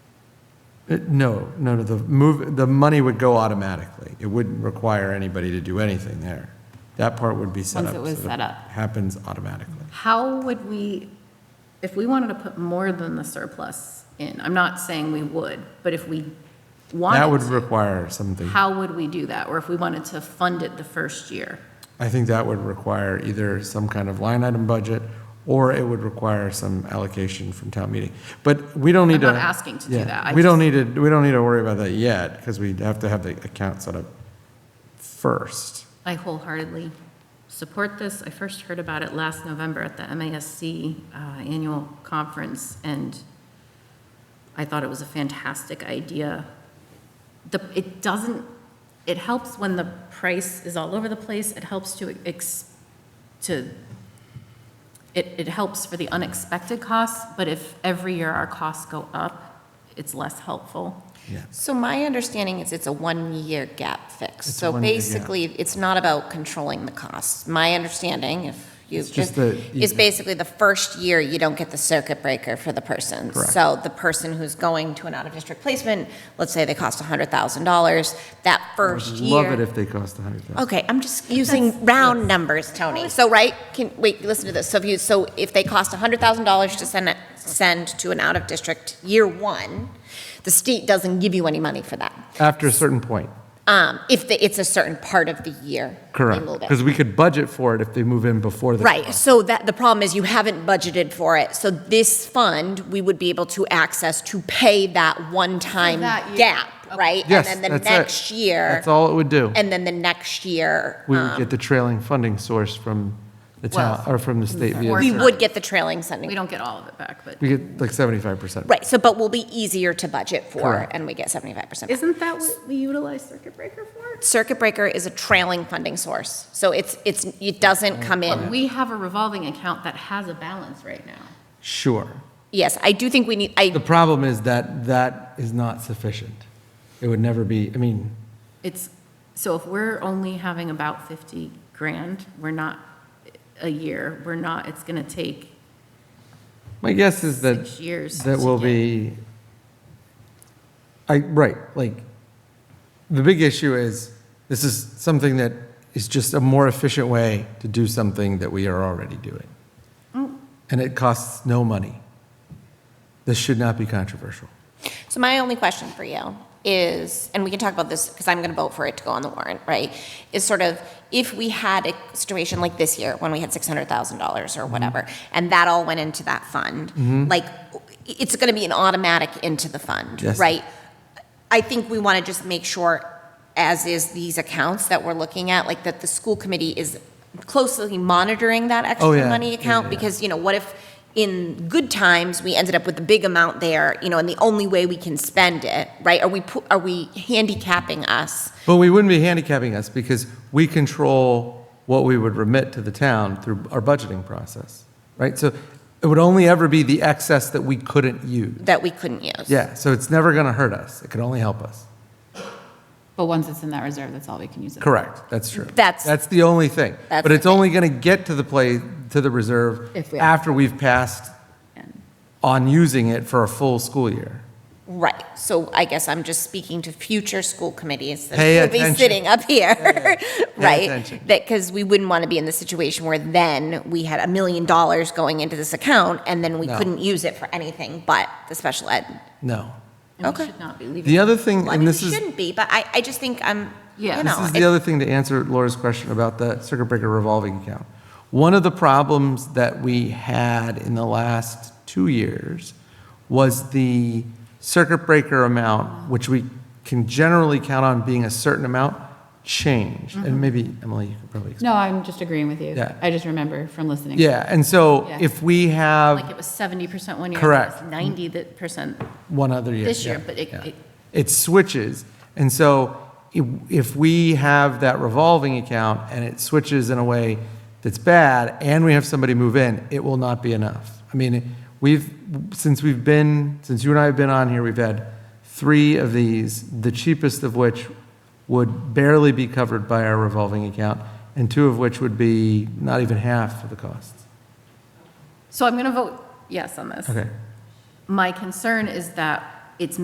It- Uh, No, no, no, the move, the money would go automatically. It wouldn't require anybody to do anything there. That part would be set up. Once it was so that set up. Happens automatically. How would we, if we wanted to put more than the surplus in, I'm not saying we would, but if we That would wanted to, require something. how would we do that? Or if we wanted to fund it the first year? I think that would require either some kind of line item budget, or it would require some allocation from town meeting. But we don't need to. I'm not asking to do Yeah, that. I We don't need to, we don't need to worry about that yet, because we have to have the account set up first. I wholeheartedly support this. I first heard about it last November at the MASC uh, Annual Conference, and I thought it was a fantastic idea. The, it doesn't, it helps when the price is all over the place. It helps to ex, to, it, it helps for the unexpected costs, but if every year our costs go up, it's less helpful. Yeah. So my understanding is it's a one-year gap It's fix. a So one-year gap. basically, it's not about controlling the costs. My understanding, if you, It's just that you- is basically the first year you don't get the circuit breaker for the person. Correct. So the person who's going to an out-of-district placement, let's say they cost $100,000, that I would first year. Love it if they cost a hundred thousand. Okay, I'm just using round numbers, Tony. So, right, can, wait, listen to this. So if you, so if they cost $100,000 to send, a- send to an out-of-district year one, the state doesn't give you any money for that. After a certain point, Um, if the, it's a certain part of the year. they correct. move it. Because we could budget for it if they move in before the. Right, so that, the problem is you haven't budgeted for it. So this fund, we would be able to access to pay that one-time that year. gap, right? Yes, And then the that's it. next year, That's all it would do. and then the next year, um, We would get the trailing funding source from the town, or from the state. via we the- would get the trailing sending. We don't get all of it back, but We get like seventy-five percent. Right, so, but will be easier to budget for, Correct. and we get seventy-five percent. isn't that what we utilize circuit breaker for? Circuit breaker is a trailing funding source, so it's, it's, it doesn't come But in. we have a revolving account that has a balance right now. Sure. Yes, I do think we need, The I, problem is that that is not sufficient. It would never be, I mean, It's, so if we're only having about 50 grand, we're not, a year, we're not, it's going to take, my guess is that. Six years That will to be, I, right, like, the big issue is, this is something that is just a more efficient way to do something that we are already doing. Oh. And it costs no money. This should not be controversial. so my only question for you is, and we can talk about this, because I'm gonna vote for it to go on the warrant, right? Is sort of, if we had a situation like this year, when we had six hundred thousand dollars Mm-hmm. or whatever, and that all went into that fund, like, it's gonna be an automatic into the fund, Yes. right? I think we want to just make sure, as is these accounts that we're looking at, like that the school committee is closely monitoring that Oh, extra yeah. money Yeah, account, yeah. because, you know, what if in good times, we ended up with a big amount there, you know, and the only way we can spend it, right? Are we, pu- are we handicapping us? But we wouldn't be handicapping us because we control what we would remit to the town through our budgeting process, right? So it would only ever be the excess that we couldn't use. That we couldn't use. Yeah, so it's never going to hurt us. It can only help us. but once it's in that reserve, that's all we can use it. Correct, that's true. That's- That's the only thing. That's But the it's only going to get to the play, to the reserve If we- after we've passed And- on using it for a full school year. Right, so I guess I'm just speaking to future school committees that Pay will be attention. sitting up here, right? attention. That, because we wouldn't want to be in the situation where then we had a million dollars going into this account and then we No. couldn't use it for anything but the special ed. No. And we Okay. should not be The leaving. other thing, Well, I and mean, we this is. shouldn't be, but I, I just think I'm, you Yeah. know. This This is it- the other thing to answer Laura's question about the circuit breaker revolving account. One of the problems that we had in the last two years was the circuit breaker amount, which we can generally count on being a certain amount, changed. And maybe, Emily, you could probably explain. No, I'm just agreeing with you. Yeah. I just remember from listening. Yeah, and so Yeah. if we Like have it was 70% one year. Correct. Ninety percent. one other year. This year, yeah, but it- yeah. it- It switches. And so i- if we have that revolving account and it switches in a way that's bad and we have somebody move in, it will not be enough. I mean, we've, since we've been, since you and I have been on here, we've had three of these, the cheapest of which would barely be covered by our revolving account and two of which would be not even half of the costs. So I'm going to vote yes on this. Okay. My concern is that it's